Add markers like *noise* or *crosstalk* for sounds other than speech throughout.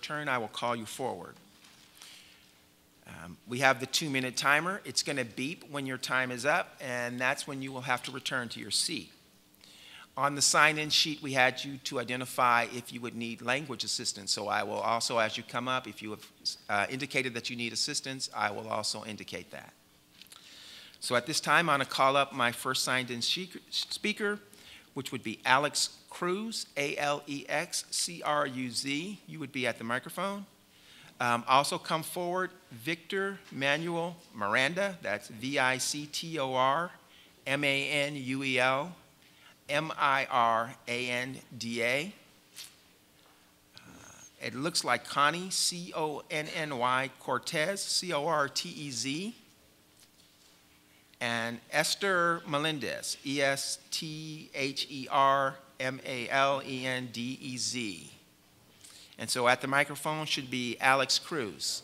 turn, I will call you forward. Um, we have the two minute timer. It's going to beep when your time is up, and that's when you will have to return to your seat. On the sign in sheet, we had you to identify if you would need language assistance. So I will also, as you come up, if you have uh, indicated that you need assistance, I will also indicate that. So at this time, I'm going to call up my first signed in speaker, which would be Alex Cruz, A L E X C R U Z. You would be at the microphone. Um, also, come forward Victor Manuel Miranda, that's V I C T O R M A N U E L M I R A N D A. Uh, It looks like Connie, C O N N Y Cortez, C O R T E Z. And Esther Melendez, E S T H E R M A L E N D E Z. And so at the microphone should be Alex Cruz.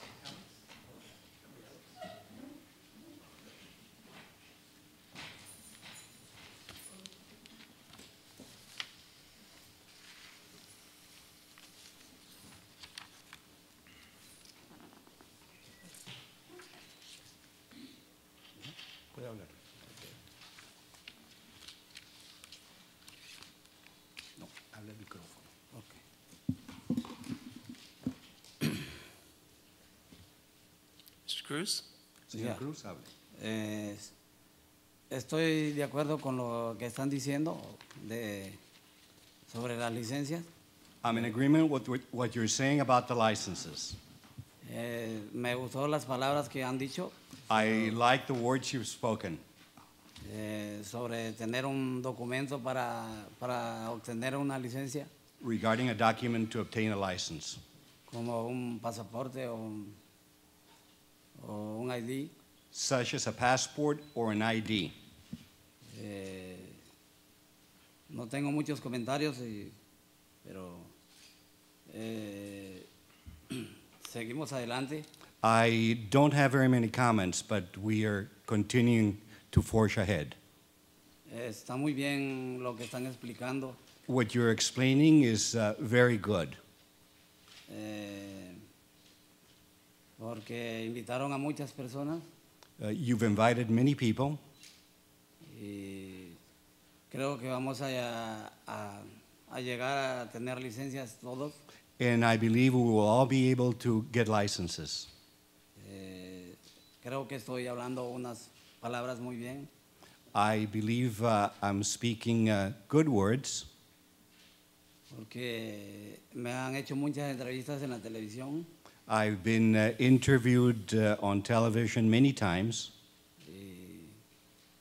No, habla el micrófono. Ok. Mr. Cruz? Señor Ya. Cruz, hable. Eh, estoy de acuerdo con lo que están diciendo de, sobre las licencias. I'm in agreement with what- what you're saying about the licenses. Eh, me gustó las palabras que han dicho I Oh. like the words you've spoken eh, sobre tener un documento para, para obtener una licencia, regarding a document to obtain a license, como un pasaporte o un, o un ID. such as a passport or an ID. Eh, no tengo muchos comentarios, y- pero eh, *clears throat* seguimos adelante. I don't have very many comments, but we are continuing to forge ahead. Eh, Está muy bien lo que están explicando. What you're explaining is uh, very good eh, porque invitaron a muchas personas Uh, you've invited many people. y creo que vamos a, a- a llegar a tener licencias todos. And I believe we will all be able to get licenses. Eh, creo que estoy hablando unas palabras muy bien. I believe uh, I'm speaking uh, good words porque me han hecho muchas entrevistas en la televisión I've been uh, interviewed uh, on television many times, y,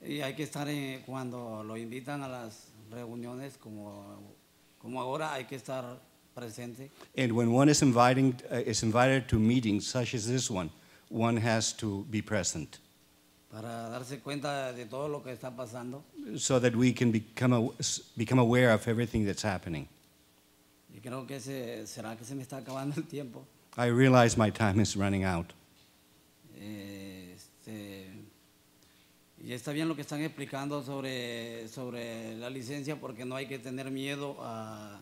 y hay que estar en- cuando lo invitan a las reuniones como, como ahora hay que estar presente and when one is, inviting, uh, is invited to meetings such as this one, one has to be present para darse cuenta de todo lo que está pasando so that we can become, aw- s- become aware of everything that's happening. y creo que se, será que se me está acabando el tiempo I realize my time is running out. Eh, este, y está bien lo que están explicando sobre, sobre la licencia porque no hay que tener miedo a,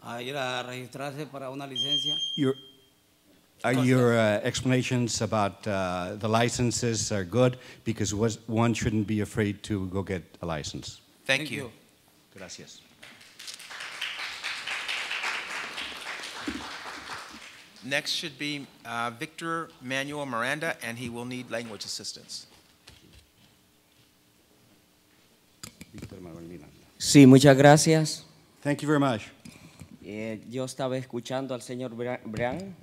a ir a registrarse para una licencia Your, uh, your uh, explanations about uh, the licenses are good because was, one shouldn't be afraid to go get a license. Thank, you. Gracias. Next should be uh, Victor Manuel Miranda, and he will need language assistance. Víctor Manuel Miranda. Sí, muchas gracias. Thank you very much. Eh, yo estaba escuchando al señor Bra- Bryan.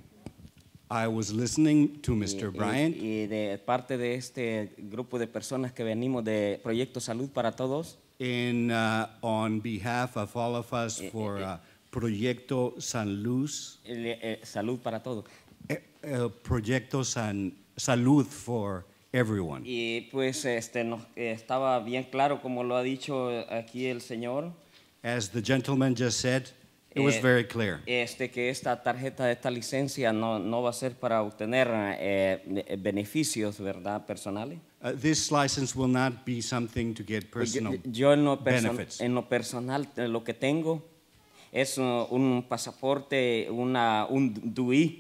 I was listening to Mr. y- Bryant. eh, Y, de parte de este grupo de personas que venimos de Proyecto Salud para Todos, In, uh, on behalf of all of us Eh, for uh, Proyecto San Luz, el, eh, Salud para Todos. eh, uh, Proyecto San Salud for everyone. Y pues este, nos, eh, estaba bien claro, como lo ha dicho aquí el señor, As the gentleman just said, it was Eh, very clear este, que esta tarjeta, esta licencia no, no va a ser para obtener eh, eh, beneficios ¿verdad? personales. uh, this license will not be something to get Pues yo- personal yo, en, lo perso- benefits. en lo personal, eh, lo que tengo es uh, un pasaporte, una, un DUI